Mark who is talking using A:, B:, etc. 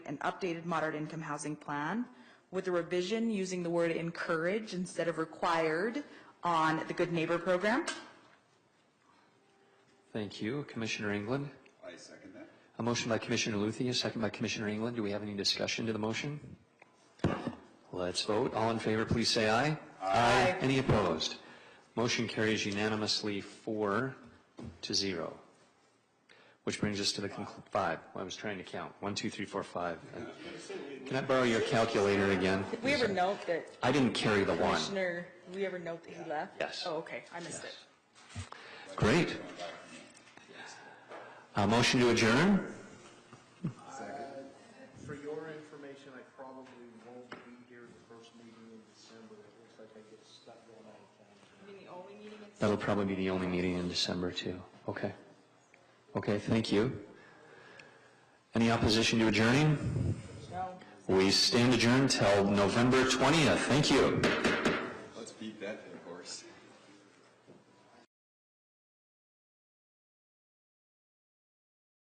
A: updated moderate income housing plan with a revision using the word encourage instead of required on the Good Neighbor program.
B: Thank you, Commissioner England.
C: I second that.
B: A motion by Commissioner Luthy, a second by Commissioner England. Do we have any discussion to the motion? Let's vote. All in favor, please say aye. Aye. Any opposed? Motion carries unanimously four to zero. Which brings us to the conclu- five. I was trying to count. One, two, three, four, five. Can I borrow your calculator again?
D: Did we ever note that
B: I didn't carry the one.
D: Commissioner, did we ever note that he left?
B: Yes.
D: Oh, okay, I missed it.
B: Great. A motion to adjourn?
E: For your information, I probably won't be here the first meeting in December. It looks like I get stuck going out of town.
B: That'll probably be the only meeting in December, too. Okay. Okay, thank you. Any opposition to adjourning?
D: No.
B: We stand adjourned till November 20th. Thank you.
C: Let's beat that dead horse.